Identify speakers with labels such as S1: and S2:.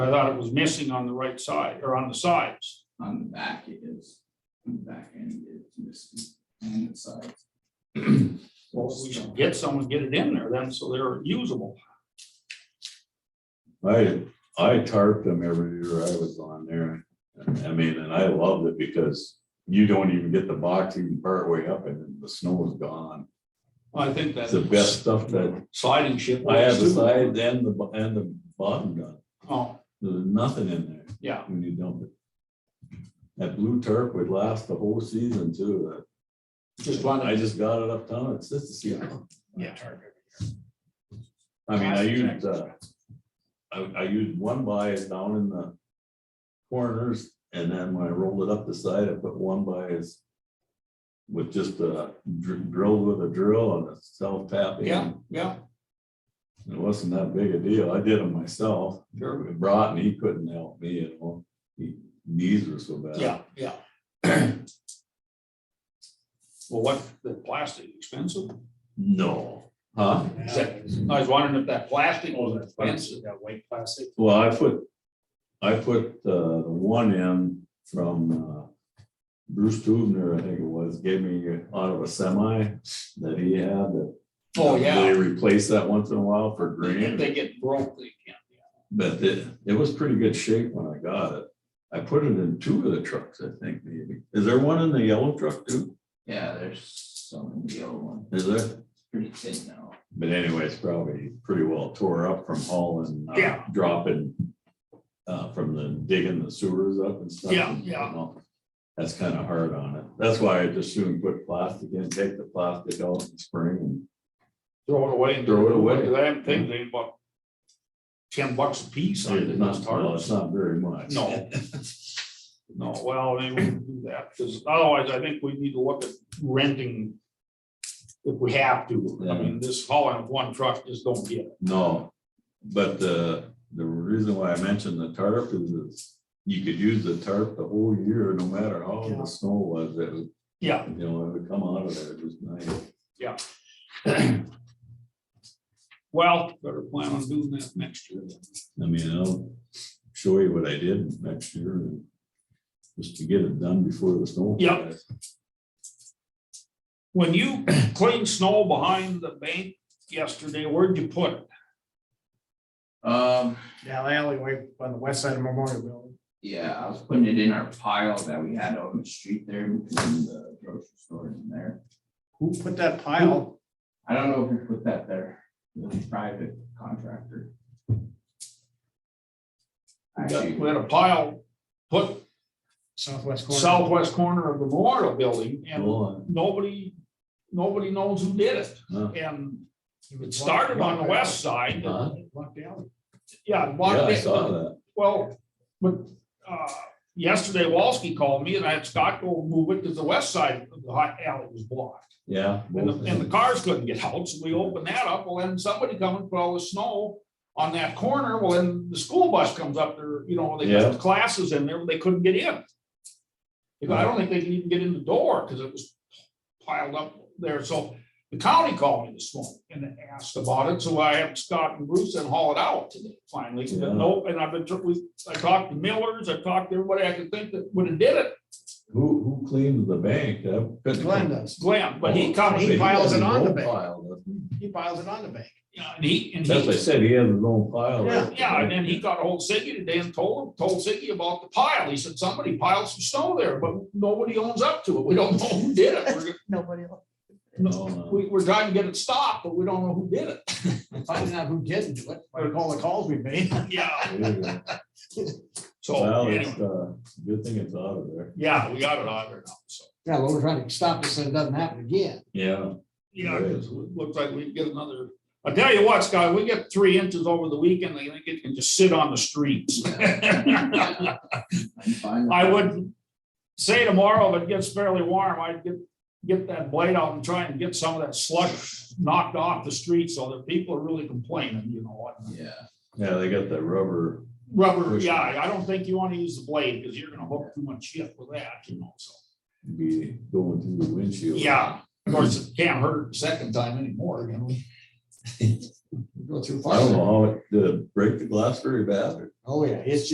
S1: I thought it was missing on the right side or on the sides.
S2: On the back it is, on the back end it's missing, and the sides.
S1: Well, we should get someone, get it in there then, so they're usable.
S3: I, I tarped them every year I was on there. And, I mean, and I loved it because you don't even get the box even partway up and then the snow is gone.
S1: I think that's.
S3: It's the best stuff that
S1: Sliding ship.
S3: I have the
S1: was too.
S3: sides and the, bo- and the bottom done.
S1: Oh,
S3: There's nothing in there
S1: yeah,
S3: when you dump it. That blue tarp would last the whole season too.
S1: just
S3: I
S1: wanted,
S3: just got it up town. It's just a seal.
S1: yeah.
S3: I mean, I used, uh, I, I used one bias down in the corners, and then when I rolled it up the side, I put one bias with just a dr- drilled with a drill and a self tap. in.
S1: Yeah, yeah,
S3: It wasn't that big a deal. I did it myself.
S1: sure.
S3: Brought and he couldn't help me at all. He- Knees were so bad.
S1: Yeah, yeah. Well, what, the plastic expensive?
S3: No, huh?
S1: Is that- I was wondering if that plastic was expensive.
S4: That white plastic.
S3: Well, I put, I put uh, the one in from uh, Bruce Tubner, I think it was, gave me out of a semi that he had. that-
S1: Oh,
S3: They
S1: yeah.
S3: replace that once in a while for
S1: If
S3: green,
S1: they get broke, they can't.
S3: but it, it was pretty good shape when I got it. I put it in two of the trucks, I think, maybe. Is there one in the yellow truck too?
S2: Yeah, there's some in the old one,
S3: Is there?
S2: it's pretty thin now.
S3: But anyway, it's probably pretty well tore up from hauling, uh,
S1: Yeah.
S3: dropping. Uh, from the digging the sewers up and stuff.
S1: Yeah,
S3: and,
S1: yeah.
S3: you know, That's kind of hard on it. That's why I just soon put plastic in, take the plastic out in spring and
S1: Throw it away. and
S3: Throw it away.
S1: Because I haven't think they bought ten bucks a piece on
S3: it's
S1: it.
S3: not, well, it's not very much.
S1: No. No, well, they wouldn't do that, because otherwise I think we need to look at renting if we have to. I
S3: Yeah.
S1: mean, this hauling of one truck just don't get it.
S3: No, but the, the reason why I mentioned the tarp is it's- you could use the tarp the whole year, no matter how
S1: Yeah.
S3: the snow was, it was,
S1: Yeah,
S3: you know, it would come out of there just nice.
S1: well, better plan on doing that next year. then.
S3: I mean, I'll show you what I did next year and just to get it done before the snow.
S1: Yep. When you cleaned snow behind the bank yesterday, where'd you put it?
S2: Um,
S4: Yeah, the alleyway on the west side of Memorial Building.
S2: yeah, I was putting it in our pile that we had on the street there, between the grocery store in there.
S4: Who put that pile?
S2: I don't know if we put that there, the private contractor. Actually,
S1: We had a pile, put
S4: Southwest corner.
S1: southwest corner of the memorial building and
S3: Well,
S1: nobody, nobody knows who did it.
S3: Huh.
S1: And
S4: He
S1: it
S4: was
S1: started
S4: blocked-
S1: on the west side.
S3: Huh?
S4: blocked the alley.
S1: Yeah. and
S3: uh, Yeah,
S1: blocked
S3: I
S1: it.
S3: saw that.
S1: Well, but uh, yesterday Walsky called me and I had Scott go move it because the west side of the hot alley was blocked.
S3: Yeah.
S1: And
S3: both of
S1: the, and the
S3: them.
S1: cars couldn't get out, so we opened that up. Well, then somebody come and put all the snow on that corner. Well, then the school bus comes up there, you know, they got
S3: Yeah.
S1: classes in there, but they couldn't get in. Because I don't think they could even get in the door because it was piled up there. So the county called me this morning and asked about it, so I had Scott and Bruce and haul it out today finally.
S3: Yeah.
S1: But no, and I've been, tr- we- I talked to Millers, I talked to everybody I could think that would have did it,
S3: Who, who cleaned the bank?
S4: Glenn does.
S1: Glenn, but
S3: Oh,
S1: he come,
S4: he piles it on the bank.
S3: bank.
S4: He piles it on the bank.
S1: yeah, and he, and
S3: That's what I
S1: he.
S3: said, he has his own pile.
S4: Yeah,
S1: Yeah, and then he got a hold of Siggy today and told him, told Siggy about the pile. He said, somebody piled some snow there, but nobody owns up to it. We don't know who did it. We're-
S5: Nobody will.
S3: No, no.
S1: We, we're trying to get it stopped, but we don't know who did it.
S4: Finding out who didn't do it, by all the calls we made.
S1: Yeah,
S3: There you go.
S1: so,
S3: Well,
S1: anyway,
S3: it's, uh, good thing it's out of there.
S1: yeah, we got it on there now, so.
S4: Yeah, well, we're trying to stop this so it doesn't happen again.
S3: Yeah.
S1: Yeah,
S3: Right.
S1: because it looks like we get another, I tell you what, Scott, we get three inches over the weekend, I think it can just sit on the streets. I
S2: I'm fine.
S1: would say tomorrow, if it gets fairly warm, I'd get, get that blade out and try and get some of that slush knocked off the street so that people are really complaining, you know what?
S2: Yeah.
S3: Yeah, they got that rubber.
S1: Rubber,
S3: Push it.
S1: yeah, I don't think you want to use the blade because you're gonna hook too much shit with that, you know, so.
S3: Be going through the windshield.
S1: Yeah, of course, it can't hurt second time anymore, can we?
S4: Go through.
S3: I don't know how it, did it break the glass very bad or?
S4: Oh, yeah, it's